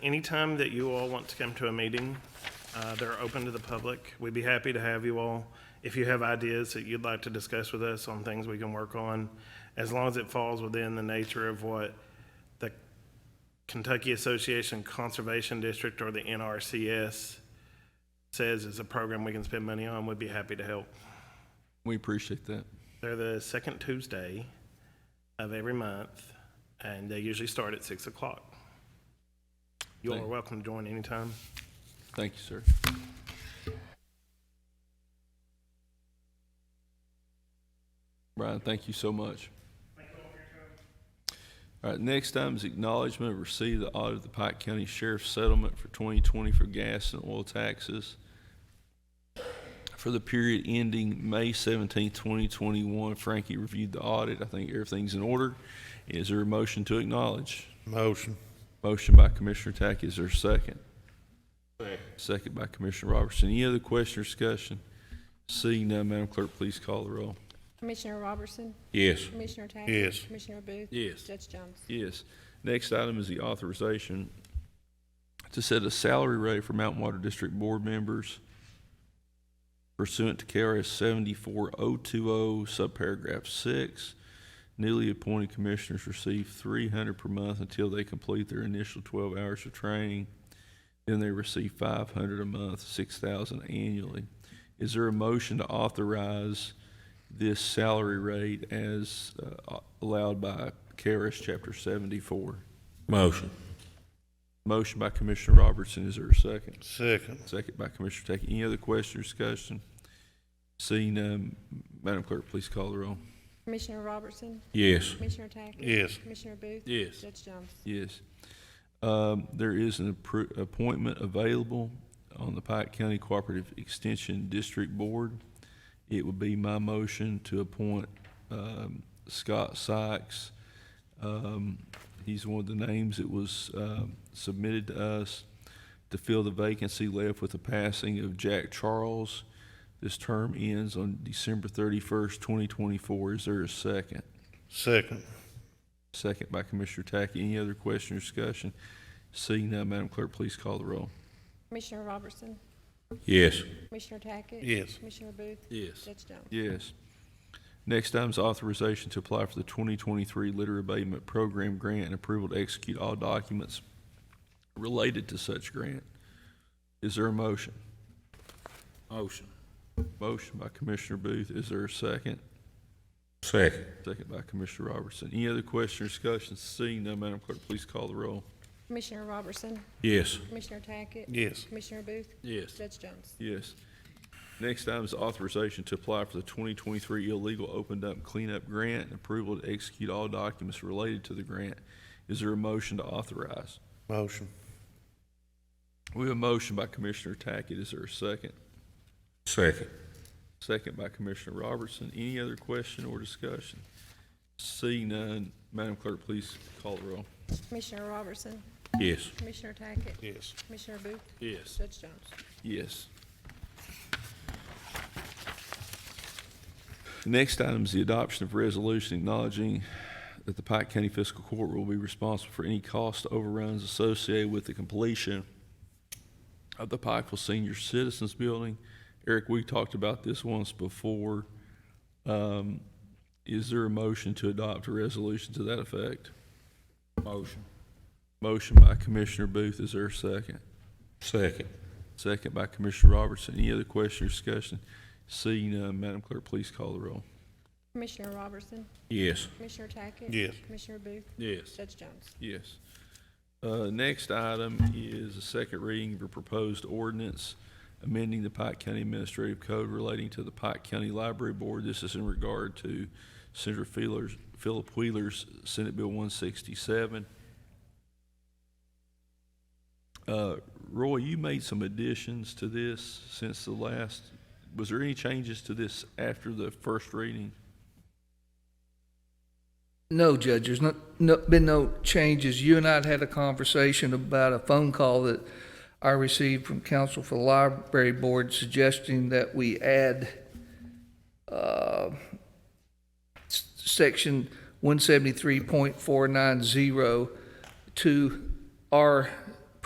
anytime that you all want to come to a meeting, uh, they're open to the public. We'd be happy to have you all. If you have ideas that you'd like to discuss with us on things we can work on, as long as it falls within the nature of what the Kentucky Association Conservation District or the NRCS says is a program we can spend money on, we'd be happy to help. We appreciate that. They're the second Tuesday of every month, and they usually start at six o'clock. You all are Thank- welcome to join anytime. Thank you, sir. Brian, thank you so much. All right, next item is acknowledgement of receipt of the audit of the Pike County Sheriff's Settlement for 2020 for gas and oil taxes for the period ending May 17, 2021. Frankie reviewed the audit. I think everything's in order. Is there a motion to acknowledge? Motion. Motion by Commissioner Tackett, is there a second? Second by Commissioner Robertson. Any other question or discussion? Seeing none, Madam Clerk, please call the roll. Commissioner Robertson? Yes. Commissioner Tackett? Yes. Commissioner Booth? Yes. Judge Jones? Yes. Next item is the authorization to set a salary rate for Mountain Water District Board members pursuant to KRS 74020, subparagraph 6. Newly appointed commissioners receive 300 per month until they complete their initial 12 hours of training. Then they receive 500 a month, 6,000 annually. Is there a motion to authorize this salary rate as uh, allowed by KRS Chapter 74? Motion. Motion by Commissioner Robertson, is there a second? Second. Second by Commissioner Tackett. Any other question or discussion? Seeing none, Madam Clerk, please call the roll. Commissioner Robertson? Yes. Commissioner Tackett? Yes. Commissioner Booth? Yes. Judge Jones? Yes. Um, There is an appro- appointment available on the Pike County Cooperative Extension District Board. It would be my motion to appoint um, Scott Sykes. Um, He's one of the names that was um, submitted to us to fill the vacancy left with the passing of Jack Charles. This term ends on December 31st, 2024. Is there a second? Second. Second by Commissioner Tackett. Any other question or discussion? Seeing none, Madam Clerk, please call the roll. Commissioner Robertson? Yes. Commissioner Tackett? Yes. Commissioner Booth? Yes. Judge Jones? Yes. Next item is authorization to apply for the 2023 litter abatement program grant and approval to execute all documents related to such grant. Is there a motion? Motion. Motion by Commissioner Booth. Is there a second? Second. Second by Commissioner Robertson. Any other question or discussion? Seeing none, Madam Clerk, please call the roll. Commissioner Robertson? Yes. Commissioner Tackett? Yes. Commissioner Booth? Yes. Judge Jones? Yes. Next item is authorization to apply for the 2023 illegal open dump cleanup grant and approval to execute all documents related to the grant. Is there a motion to authorize? Motion. We have a motion by Commissioner Tackett. Is there a second? Second. Second by Commissioner Robertson. Any other question or discussion? Seeing none, Madam Clerk, please call the roll. Commissioner Robertson? Yes. Commissioner Tackett? Yes. Commissioner Booth? Yes. Judge Jones? Yes. Next item is the adoption of resolution acknowledging that the Pike County Fiscal Court will be responsible for any cost overruns associated with the completion of the Pikeville Senior Citizens Building. Eric, we talked about this once before. Um, Is there a motion to adopt a resolution to that effect? Motion. Motion by Commissioner Booth, is there a second? Second. Second by Commissioner Robertson. Any other question or discussion? Seeing none, Madam Clerk, please call the roll. Commissioner Robertson? Yes. Commissioner Tackett? Yes. Commissioner Booth? Yes. Judge Jones? Yes. Uh, Next item is a second reading of a proposed ordinance amending the Pike County Administrative Code relating to the Pike County Library Board. This is in regard to Senator Wheeler's- Philip Wheeler's Senate Bill 167. Uh, Roy, you made some additions to this since the last, was there any changes to this after the first reading? No, Judge, there's not, no, been no changes. You and I had had a conversation about a phone call that I received from counsel for the library board suggesting that we add, uh, s- section one seventy-three point four nine zero to our